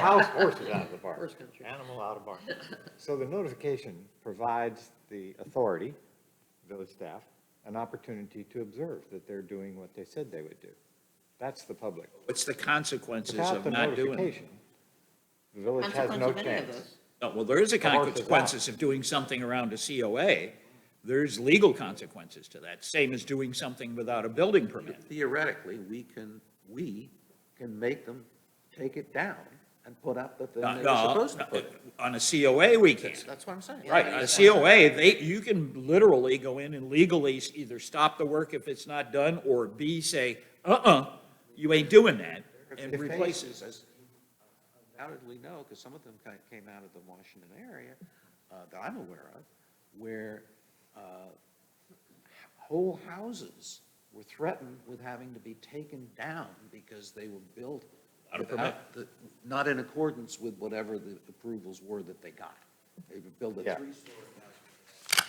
House horses out of the barn. Horse country. Animal out of barn. So the notification provides the authority, village staff, an opportunity to observe that they're doing what they said they would do. That's the public. What's the consequences Without of the not doing? it? notification, the village has no Consequence of any of chance. those. No, well, there is a The horse is out. consequences of doing something around a COA. There's legal consequences to that, same as doing something without a building permit. Theoretically, we can, we can make them take it down and put up the thing No, they were Uh, no, supposed to put. up. On a COA, we can't. That's what I'm saying. Right, on a COA, they, you can literally go in and legally s- either stop the work if it's not done, or B, say, uh-uh, you ain't doing that, If and they- replace it. Places, undoubtedly know, because some of them kind of came out of the Washington area uh, that I'm aware of, where uh, whole houses were threatened with having to be taken down because they were built Out of without the- not in accordance with whatever the approvals were that they got. They would build a Yeah. three-story house.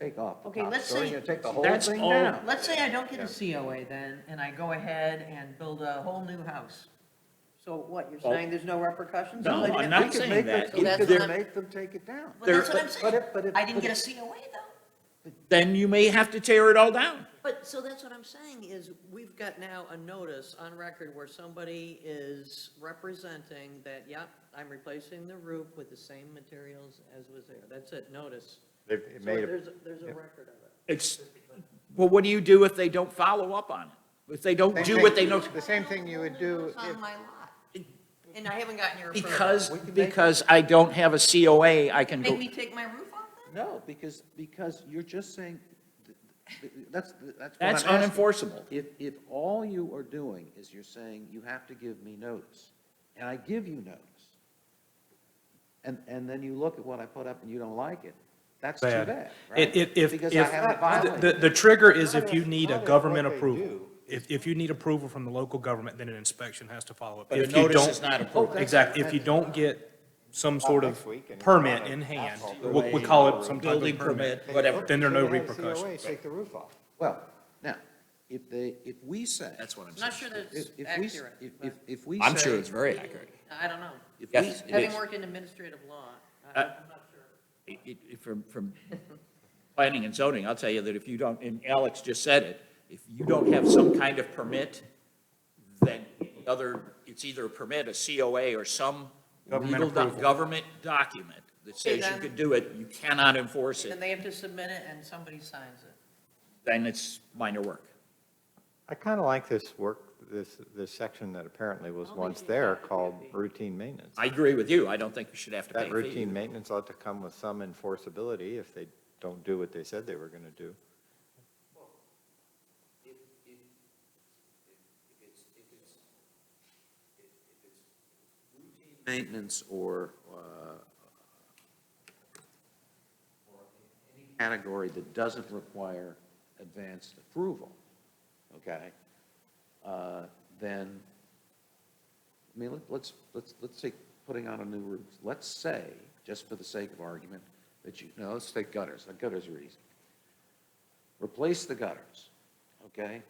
Take off the Okay, top let's story, say- you take the whole That's thing all- down. Let's say I don't get a COA then, and I go ahead and build a whole new house. So what, you're saying there's no repercussions? No, Like, I'm We not could saying make them- that. We That's could not- make them take it down. Well, that's what I'm There- but- but saying. it- but it- I didn't but get a it- COA though. Then you may have to tear it all down. But, so that's what I'm saying is, we've got now a notice on record where somebody is representing that, yep, I'm replacing the roof with the same materials as was there. That's it, notice. They've So made a there's, there's a record of it. It's, well, what do you do if they don't follow up on it? If they don't Same do thing. what they know? The same thing you would do It's on if- my lot, and I haven't gotten your approval. Because, We can make- because I don't have a COA, I can Make go, me take my roof off then? No, because, because you're just saying, th- th- that's, that's what that's I'm asking. unenforceable. If, if all you are doing is you're saying, you have to give me notice, and I give you notice, and, and then you look at what I put up and you don't like it, that's too Bad. bad, right? It, it, if, Because I haven't if, the, violated. the trigger is if you need Not a if government what they approval. do If, if you need approval from the local government, then an inspection has to follow up. But a If you notice don't- is not approval. Oh, that's- Exactly, if you don't get some sort of next week and it's permit not in an hand, asphalt we, we call it some type building of permit. permit, whatever. Then there are no If they had a repercussions. COA, Take the roof off. Well, now, if they, if we say. That's what I'm saying. Not sure that If, it's if we, s- accurate, if, but if- if we say. I'm sure it's very accurate. I don't know. if we Yes, s- it Having is. worked in administrative law, I- Uh, I'm not sure. It- it- From, from planning and zoning, I'll tell you that if you don't, and Alex just said it, if you don't have some kind of permit, then the other, it's either a permit, a COA, or some Government legal, doc- approval. government document that Okay, says you then- can do it, you cannot enforce Then it, they have to submit it and somebody signs it. then it's minor work. I kind of like this work, this, this section that apparently was I'll once leave it there at that. called routine maintenance. I agree with you, I don't think you should have to pay That a fee. routine maintenance ought to come with some enforceability if they don't do what they said they were going to do. Maintenance or, uh, or any category that doesn't require advanced approval, okay? uh, Then, I mean, let- let's, let's, let's say, putting on a new roof, let's say, just for the sake of argument, that you, no, let's take gutters, the gutters are easy. Replace the gutters, okay?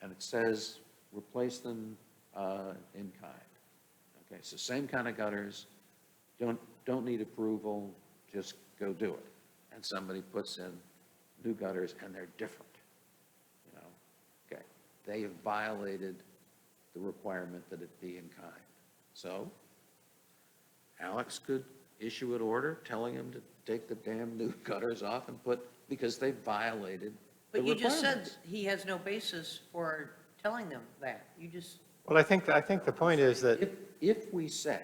And it says, replace them uh, in kind. Okay, so same kind of gutters, don't, don't need approval, just go do it. And somebody puts in new gutters and they're different, you know? Okay, they have violated the requirement that it be in kind. So Alex could issue an order telling him to take the damn new gutters off and put, because they violated the But you just said requirements. he has no basis for telling them that. You just, Well, I think, I think the point is that, If, if we say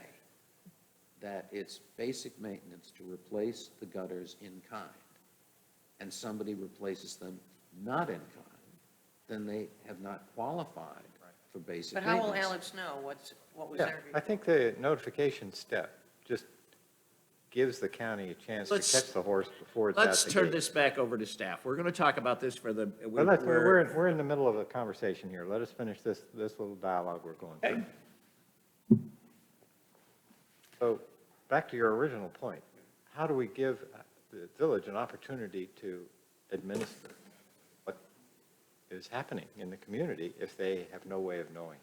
that it's basic maintenance to replace the gutters in kind, and somebody replaces them not in kind, then they have not qualified for basic but how maintenance. will Alex know what's, what was yeah, there? I think the notification step just gives the county a chance to Let's- catch the horse before it's out the Let's turn gate. this back over to staff. We're going to talk about this for the, we- Well, let's- we're, we're we're, in- we're in the middle of a conversation here. Let us finish this, this little dialogue we're going through. So, back to your original point, how do we give uh, the village an opportunity to administer what is happening in the community if they have no way of knowing.